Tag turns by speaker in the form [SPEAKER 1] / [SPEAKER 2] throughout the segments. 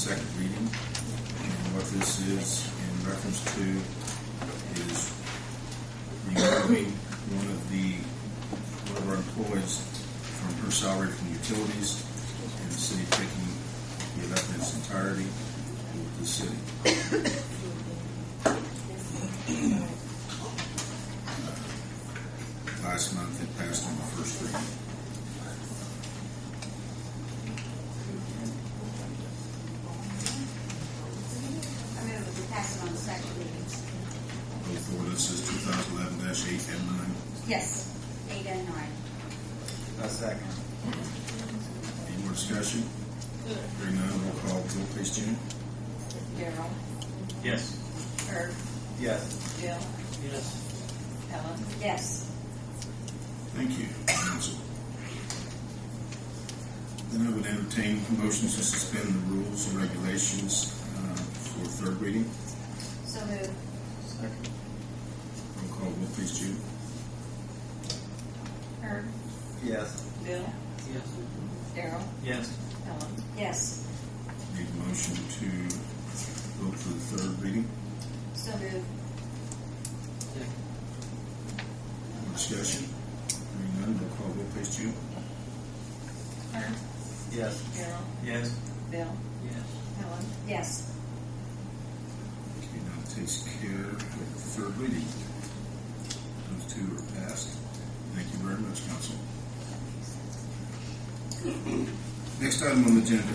[SPEAKER 1] second reading. And what this is in reference to is removing one of the, one of our employees from her salary from utilities and the city taking the amount in its entirety with the city. Last month it passed on the first reading.
[SPEAKER 2] I move that we pass it on the second reading.
[SPEAKER 1] Both ordinances two thousand eleven eight and nine.
[SPEAKER 2] Yes. Eight and nine.
[SPEAKER 3] A second.
[SPEAKER 1] Any more discussion? Hearing none, roll call, vote please, Jim.
[SPEAKER 2] Daryl.
[SPEAKER 4] Yes.
[SPEAKER 2] Herb.
[SPEAKER 3] Yes.
[SPEAKER 2] Bill.
[SPEAKER 4] Yes.
[SPEAKER 2] Ellen. Yes.
[SPEAKER 1] Thank you, council. Then I would entertain motions to suspend the rules and regulations uh, for third reading.
[SPEAKER 2] So move.
[SPEAKER 3] Second.
[SPEAKER 1] Roll call, vote please, Jim.
[SPEAKER 2] Herb.
[SPEAKER 3] Yes.
[SPEAKER 2] Bill.
[SPEAKER 4] Yes.
[SPEAKER 2] Daryl.
[SPEAKER 4] Yes.
[SPEAKER 2] Ellen. Yes.
[SPEAKER 1] Need a motion to vote for the third reading.
[SPEAKER 2] So move.
[SPEAKER 1] More discussion? Hearing none, roll call, vote please, Jim.
[SPEAKER 2] Herb.
[SPEAKER 3] Yes.
[SPEAKER 2] Daryl.
[SPEAKER 4] Yes.
[SPEAKER 2] Bill.
[SPEAKER 4] Yes.
[SPEAKER 2] Ellen. Yes.
[SPEAKER 1] Okay, now it takes care of the third reading. Those two are passed. Thank you very much, council. Next item on the agenda,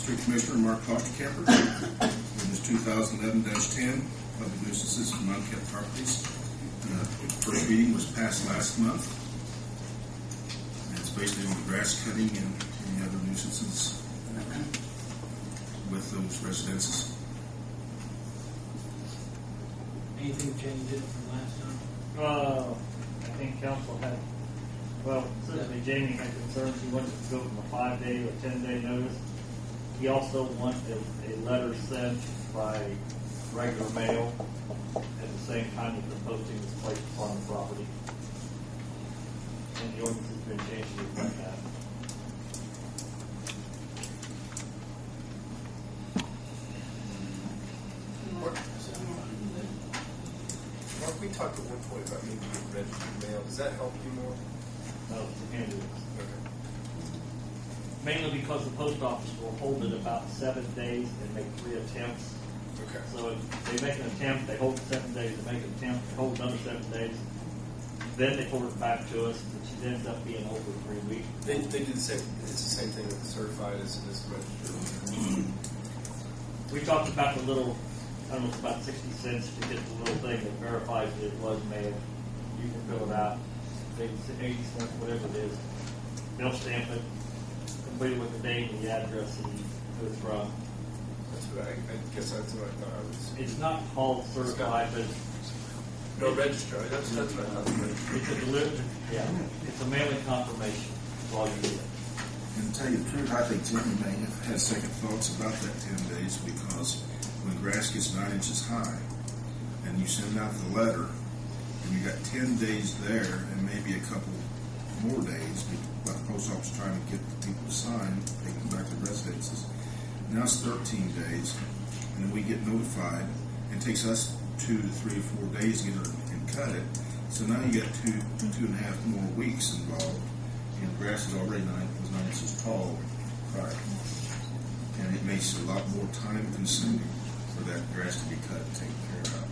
[SPEAKER 1] Street Commissioner Mark Fostercamper, ordinance two thousand eleven ten, public nuisances from unkept properties. Uh, First reading was passed last month. And it's basically on grass cutting and any other nuisances with those residences.
[SPEAKER 4] Anything changed it from last time?
[SPEAKER 5] Uh, I think council had, well, certainly Jamie had concerns, he wanted to go from a five-day to a ten-day notice. He also wanted a letter sent by regular mail at the same time that the posting was placed upon the property. And the ordinance has been changed to reflect that.
[SPEAKER 6] Mark, we talked at one point about maybe getting registered mail. Does that help you more?
[SPEAKER 5] No, it's a handle.
[SPEAKER 6] Okay.
[SPEAKER 5] Mainly because the post office will hold it about seven days and make three attempts.
[SPEAKER 6] Okay.
[SPEAKER 5] So if they make an attempt, they hold it seven days, they make an attempt, they hold another seven days, then they forward it back to us, which ends up being over three weeks.
[SPEAKER 6] They, they do the same, it's the same thing with the certified as, as registered.
[SPEAKER 5] We talked about the little, I don't know, it's about sixty cents to get the little thing that verifies that it was mailed. You can fill it out, they, eighty cents, whatever it is. They'll stamp it, complete it with the date and the address and who it's from.
[SPEAKER 6] That's what I, I guess that's what I thought I was.
[SPEAKER 5] It's not called certified, but
[SPEAKER 6] No, register. That's, that's what I thought. registered.
[SPEAKER 5] It's a deliver, yeah, it's a mailing confirmation, is all you need.
[SPEAKER 1] And to tell you the truth, I think Jimmy may have had second thoughts about that ten days because when grass gets nine inches high and you send out the letter and you got ten days there and maybe a couple more days, but the post office trying to get the people to sign, they come back to residences. Now it's thirteen days and we get notified. It takes us two to three or four days to get it and cut it. So now you got two, two and a half more weeks involved and the grass is already nine, was nine inches tall prior. And it makes it a lot more time consuming for that grass to be cut and taken care of.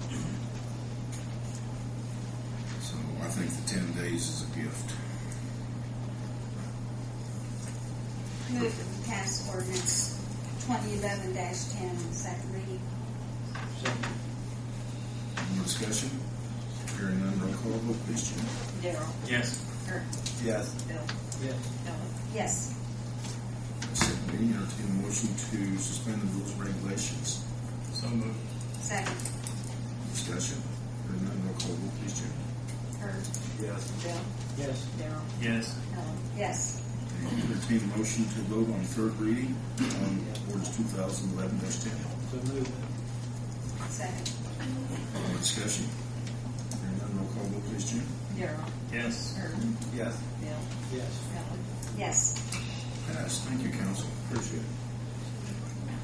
[SPEAKER 1] So I think the ten days is a gift.
[SPEAKER 2] Move that we pass ordinance twenty eleven dash ten on the second reading.
[SPEAKER 4] Second.
[SPEAKER 1] Any more discussion? Hearing none, roll call vote, please, Jim.
[SPEAKER 2] Daryl.
[SPEAKER 4] Yes.
[SPEAKER 2] Herb.
[SPEAKER 3] Yes.
[SPEAKER 2] Bill.
[SPEAKER 4] Yes.
[SPEAKER 2] Ellen. Yes.
[SPEAKER 1] Second reading, entertain a motion to suspend the rules and regulations.
[SPEAKER 4] So moved.
[SPEAKER 2] Second.
[SPEAKER 1] Discussion? Hearing none, roll call vote, please, Jim.
[SPEAKER 2] Herb.
[SPEAKER 3] Yes.
[SPEAKER 2] Bill.
[SPEAKER 4] Yes.
[SPEAKER 2] Daryl.
[SPEAKER 4] Yes.
[SPEAKER 2] Ellen. Yes.
[SPEAKER 1] Entertain a motion to vote on third reading on ordinance two thousand eleven ten.
[SPEAKER 4] So moved.
[SPEAKER 2] Second.
[SPEAKER 1] Any discussion? Hearing none, roll call vote, please, Jim.
[SPEAKER 2] Daryl.
[SPEAKER 4] Yes.
[SPEAKER 2] Herb.
[SPEAKER 3] Yes.
[SPEAKER 2] Bill.
[SPEAKER 4] Yes.
[SPEAKER 2] Ellen. Yes.
[SPEAKER 1] Pass. Thank you, council. Appreciate it.